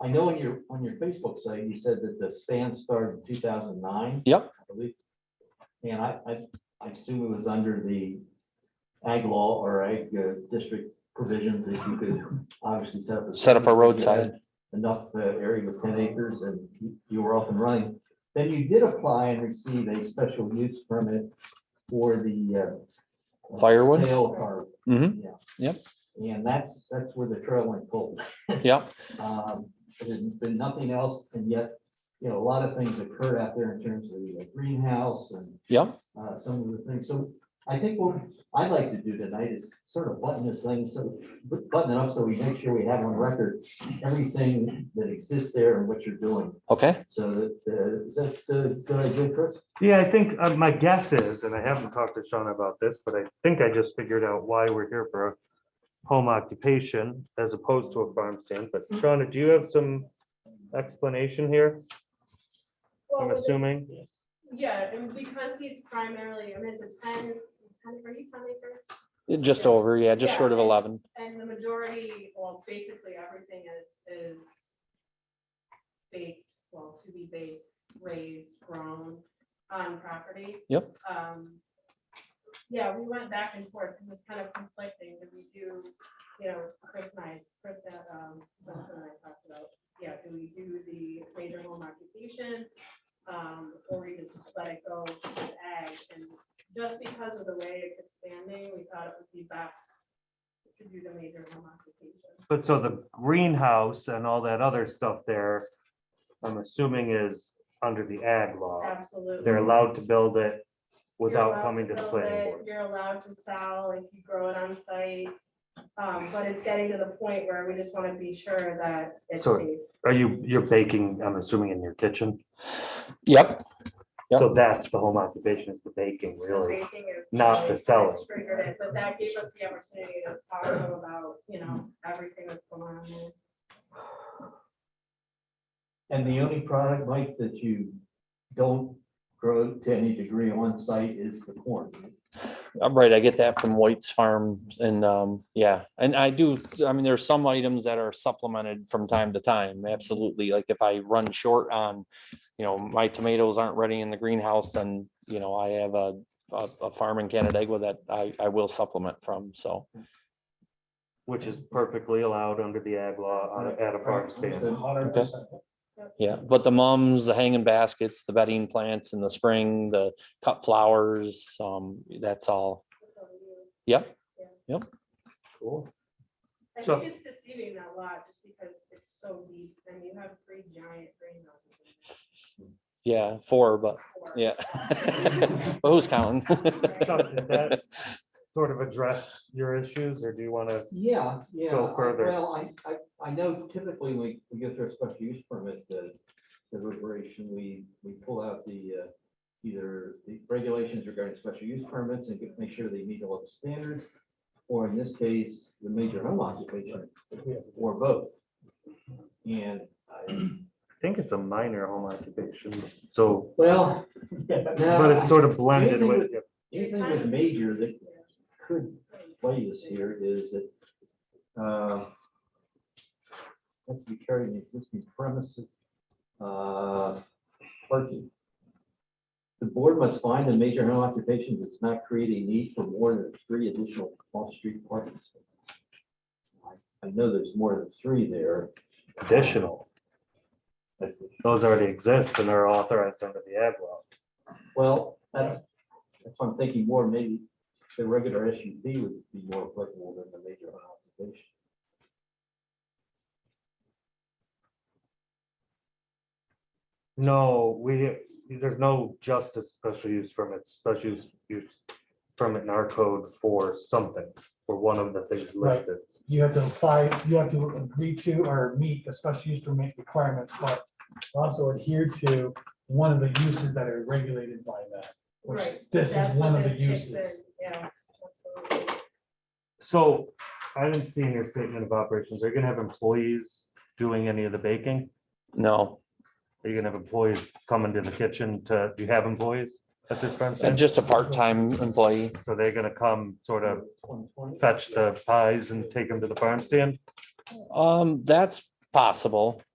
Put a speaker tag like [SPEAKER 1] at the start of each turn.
[SPEAKER 1] I know on your, on your Facebook site, you said that the stand started in two thousand nine.
[SPEAKER 2] Yep.
[SPEAKER 1] And I, I, I assume it was under the ag law or ag uh, district provisions that you could obviously set up.
[SPEAKER 2] Set up
[SPEAKER 1] stand if
[SPEAKER 2] a
[SPEAKER 1] you
[SPEAKER 2] roadside.
[SPEAKER 1] had Enough uh, area with ten acres and you- you were up and running. Then you did apply and receive a special use permit for the. uh,
[SPEAKER 2] Firewood?
[SPEAKER 1] Sale of firewood.
[SPEAKER 2] Mhm.
[SPEAKER 1] Yeah.
[SPEAKER 2] Yep.
[SPEAKER 1] And that's, that's where the trail went cold.
[SPEAKER 2] Yeah,
[SPEAKER 1] Um, There's been nothing else, and yet, you know, a lot of things occurred out there in terms of the greenhouse and
[SPEAKER 2] yeah,
[SPEAKER 1] uh, some of the things. So I think what I'd like to do tonight is sort of button this thing, so button it up so we make sure we have on record everything that exists there and what you're doing.
[SPEAKER 2] okay,
[SPEAKER 1] So that, uh, is that the good idea, Chris?
[SPEAKER 3] Yeah, I think uh, my guess is, and I haven't talked to Sean about this, but I think I just figured out why we're here for a home occupation as opposed to a farm stand. But
[SPEAKER 4] Mm-hmm.
[SPEAKER 3] Shauna, do you have some explanation here?
[SPEAKER 4] Well,
[SPEAKER 3] I'm
[SPEAKER 4] with Oh, this-
[SPEAKER 3] assuming.
[SPEAKER 4] Yeah, and because he's primarily, I mean, it's a 10 10 are you ten acre?
[SPEAKER 2] just over, yeah, just short of
[SPEAKER 4] Yeah.
[SPEAKER 2] eleven.
[SPEAKER 4] And the majority, well, basically everything is, is baked, well, to be baked, raised, grown on property.
[SPEAKER 2] Yep.
[SPEAKER 4] Um, Yeah, we went back and forth, it was kind of conflicting, did we do, you know, Chris and I, Chris, that, um, Johnson and I talked about, yeah, do we do the major home occupation? Um, or we just let it go to ag, and just because of the way it's expanding, we thought it would be best to do the major home occupation.
[SPEAKER 3] But so the greenhouse and all that other stuff there, I'm assuming is under the ag law.
[SPEAKER 4] Absolutely.
[SPEAKER 3] They're allowed to build it
[SPEAKER 4] You're
[SPEAKER 3] without
[SPEAKER 4] allowed
[SPEAKER 3] coming to the
[SPEAKER 4] build
[SPEAKER 3] planning
[SPEAKER 4] it,
[SPEAKER 3] board.
[SPEAKER 4] You're allowed to sell, if you grow it on site, um, but it's getting to the point where we just wanna be sure that it's
[SPEAKER 3] So-
[SPEAKER 4] safe.
[SPEAKER 3] Are you, you're baking, I'm assuming in your kitchen?
[SPEAKER 2] Yep, Yep.
[SPEAKER 3] So that's the home occupation is the baking,
[SPEAKER 4] So
[SPEAKER 3] really.
[SPEAKER 4] baking is
[SPEAKER 3] not
[SPEAKER 4] really
[SPEAKER 3] the selling.
[SPEAKER 4] what Triggered it, but that gave us the opportunity to talk to them about, you know, everything that's going on there.
[SPEAKER 1] And the only product, Mike, that you don't grow to any degree on site is the corn.
[SPEAKER 2] Uh, right, I get that from White's Farms and, um, yeah, and I do, I mean, there's some items that are supplemented from time to time, absolutely. Like if I run short on, you know, my tomatoes aren't ready in the greenhouse, then, you know, I have a, a, a farm in Canandaigua that I, I will supplement from, so.
[SPEAKER 3] Which is perfectly allowed under the ag law on a- at a farm stand.
[SPEAKER 1] Hundred
[SPEAKER 2] Okay. Yeah, but the mums, the hanging baskets, the bedding plants in the spring, the cut flowers, um, that's all, yep,
[SPEAKER 1] Cool.
[SPEAKER 4] I
[SPEAKER 3] So-
[SPEAKER 4] think it's deceiving that lot just because it's so deep and you have three giant greenhouses. in there.
[SPEAKER 2] yeah, four, but,
[SPEAKER 4] Four.
[SPEAKER 2] yeah. But who's counting?
[SPEAKER 3] So does that Sort of address your issues, or do you want to,
[SPEAKER 1] Yeah, yeah.
[SPEAKER 3] Go
[SPEAKER 1] I-
[SPEAKER 3] further.
[SPEAKER 1] Well, I, I, I know typically we, we get through a special use permit, the, the deliberation, we, we pull out the, uh, either the regulations regarding special use permits and get- make sure they meet all the standards, or in this case, the major home occupation, or both. And I,
[SPEAKER 3] I think it's a minor home occupation, so,
[SPEAKER 1] well,
[SPEAKER 3] but it's
[SPEAKER 1] now,
[SPEAKER 3] sort of blended with.
[SPEAKER 1] anything with major that could play is here is that uh, has to be carried in existing premises. uh, Parking. The board must find a major home occupation does not create a need for more than three additional off-street parking spaces. I- I know there's more than three there.
[SPEAKER 3] Additional,
[SPEAKER 1] but-
[SPEAKER 3] those already exist and are authorized under the ag law.
[SPEAKER 1] Well, that's, that's what I'm thinking more, maybe the regular SUV would be more applicable than the major home occupation.
[SPEAKER 3] No, we, there's no justice special use permit, special use, use permit in our code for something, for one of the things
[SPEAKER 5] Right.
[SPEAKER 3] listed.
[SPEAKER 5] you have to apply, you have to agree to or meet the special use permit requirements, but also adhere to one of the uses that are regulated by that. which
[SPEAKER 4] Right,
[SPEAKER 5] This is
[SPEAKER 4] That's
[SPEAKER 5] one
[SPEAKER 4] what
[SPEAKER 5] of the
[SPEAKER 4] this
[SPEAKER 5] uses.
[SPEAKER 4] kicks in, Yeah, absolutely.
[SPEAKER 3] So I didn't see in your statement of operations, are you gonna have employees doing any of the baking?
[SPEAKER 2] No,
[SPEAKER 3] Are you gonna have employees coming to the kitchen to, do you have employees at this farm
[SPEAKER 2] uh,
[SPEAKER 3] stand?
[SPEAKER 2] just a part-time employee,
[SPEAKER 3] So they're gonna come sort of
[SPEAKER 1] 2020?
[SPEAKER 3] fetch the pies and take them to the farm stand?
[SPEAKER 2] um, that's possible,